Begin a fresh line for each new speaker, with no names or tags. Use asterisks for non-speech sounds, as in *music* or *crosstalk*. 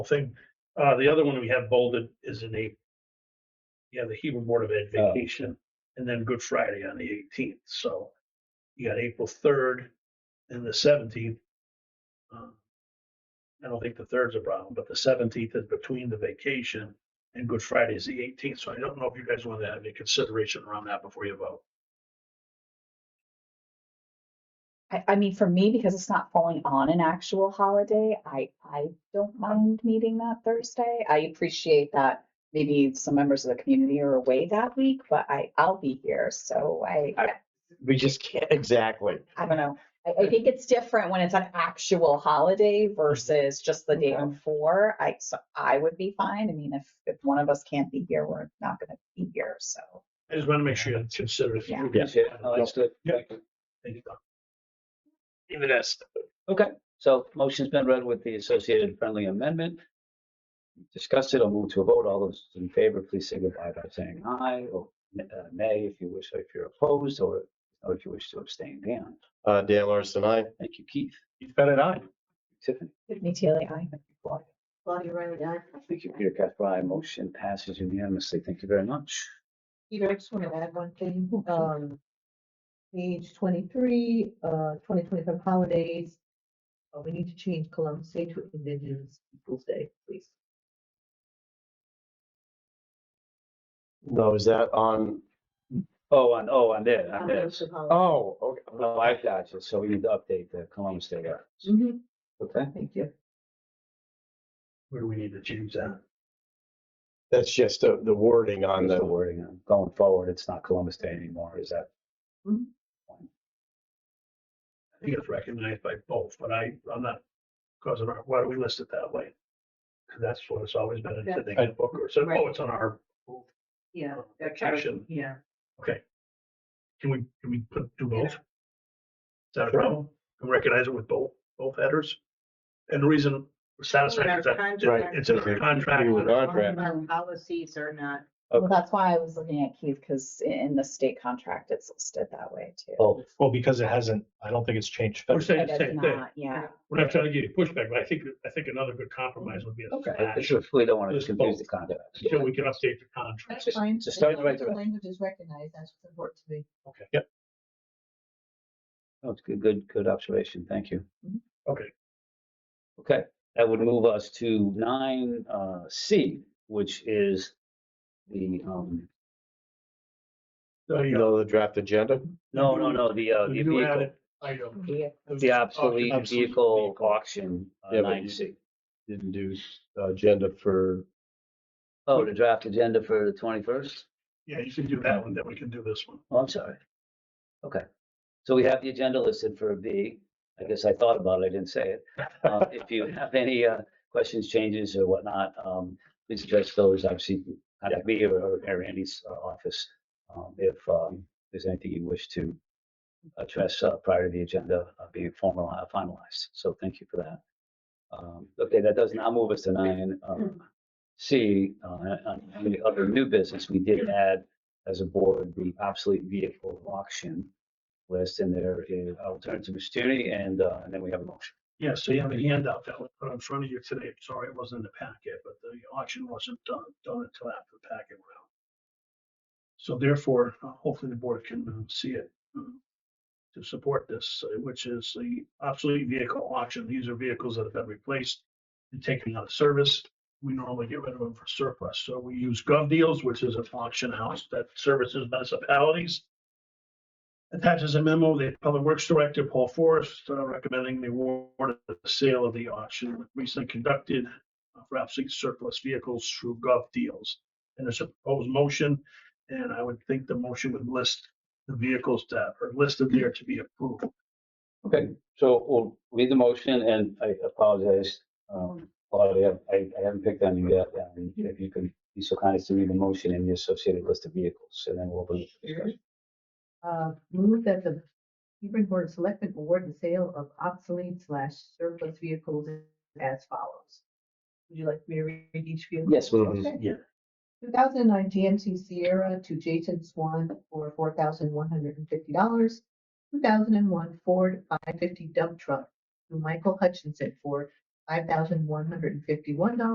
thing. Uh, the other one we have bolded is in April. You have the Hebrew Board of Ed
Oh.
vacation and then Good Friday on the eighteenth. So you got April third and the seventeenth. Um, I don't think the third's a problem, but the seventeenth is between the vacation and Good Friday is the eighteenth. So I don't know if you guys want to have any consideration around that before you vote.
I, I mean, for me, because it's not falling on an actual holiday, I, I don't mind meeting that Thursday. I appreciate that maybe some members of the community are away that week, but I, I'll be here, so I,
I- We just can't, *laughs* exactly.
I don't know. I, I think it's different when it's an actual holiday versus just the day
Okay.
before. I, so I would be fine. I mean, if, if one of us can't be here, we're not gonna be here, so.
I just want to make sure you consider it.
Yeah.
Understood.
Yeah. Thank you, Doc.
Even this. Okay, so motion's been read with the associated friendly amendment. Discussed it. I'll move to a vote. All those in favor, please signify by saying aye or uh, nay if you wish, or if you're opposed, or or if you wish to abstain. Dan,
Uh, Dan Larson, I.
thank you, Keith,
You've got it on.
Tiffany.
Me too, like, I.
Claudia.
Claudia Riley, aye.
Thank you, Peter Casper. aye. Motion passes unanimously. Thank you very much.
Peter, I just want to add one thing, um, page twenty-three, uh, twenty twenty-five holidays. Uh, we need to change Columbus Day to Indigenous Peoples' Day, please.
No, is that on?
Oh, on, oh, on there, on this.
Mhm,
Oh, okay.
Oh, I got you. So we need to update the Columbus Day.
Oh.
reference.
Mm-hmm.
Okay.
Thank you.
Where do we need to change that?
That's just uh, the, the wording on
Just
the.
the wording on- going forward, it's not Columbus Day anymore, is that?
I think it's recognized by both, but I, I'm not causing, our- why do we list it that way? 'Cause that's what it's always been in
Yeah.
the book or so, oh,
Right.
it's on our,
Yeah.
that kind of- Action.
Yeah.
can we, can we put, do both? Is that a
Sure.
problem? Can we recognize it with both, both headers? And the reason we're satisfied is that
Right.
it's in our contract.
Your contract.
Our policies are not.
Well, that's why I was looking at Keith, because in the state contract, it's listed that way too.
Oh,
Well, because it hasn't, I don't think it's changed.
We're saying
It
the
is
same thing.
not, yeah.
We're not trying to give you pushback, but I think, I think another good compromise would be a
okay, I
slash,
just really don't want to
There's both.
confuse the contract.
so we can update the contract.
Just- just start right there.
Language is recognized, that's what's important to me.
Oh, it's good, good, good observation, thank you.
Mhm.
Okay.
Okay, that would move us to nine, uh, C, which is the, um,
So,
You
you know,
know, the draft agenda?
no, no, no, the, uh, the
the new
vehicle,
added item.
the obsolete
obsolete
vehicle
vehicle.
auction, uh,
Yeah, but
nine
you-
C.
Didn't do uh, agenda for,
Oh, the draft agenda for the twenty-first?
Yeah, you can do that one, then we can do this one.
Oh, I'm sorry. Okay. So we have the agenda listed for B. I guess I thought about it, I didn't say it. Uh, If you have any uh, questions, changes or whatnot, um, please address those, obviously, at me or- or or Randy's uh, office. um, If um, there's anything you wish to address uh, prior to the agenda uh, being formalized, finalized. So thank you for that. Um, Okay, that does not move us to nine. um, C, uh, on on the other new business, we did add as a board, the obsolete vehicle auction list, and there is alternative opportunity, and, uh, and then we have a motion.
Yeah, so you have a handout that was put in front of you today. Sorry, it wasn't in the packet, but the auction wasn't done, done until after the packet went out. So therefore, uh, hopefully the board can uh, see it uh, to support this, uh, which is the obsolete vehicle auction. These are vehicles that have been replaced and taken out of service. We normally get rid of them for surplus. So we use Gov Deals, which is an auction house that services municipalities. Attaches a memo, the Public Works Director, Paul Forrest, uh, recommending the award of the sale of the auction recently conducted for obsolete surplus vehicles through Gov Deals. And there's a proposed motion, and I would think the motion would list the vehicles that are listed there to be approved.
Okay, so we'll read the motion, and I apologize, um, Claudia, I, I haven't picked on you yet. Um, If you could be so kind as to read the motion and the associated list of vehicles, and then we'll. open the discussion.
Uh, move that the Hebron Board of Selectmen award the sale of obsolete slash surplus vehicles as follows. Would you like me to read each vehicle?
Yes, we'll-
Okay.
yeah.
Two thousand nine GMC Sierra to Jason Swan for four thousand one hundred and fifty dollars. Two thousand and one Ford five fifty dump truck to Michael Hutchinson for five thousand one hundred and fifty-one dollars.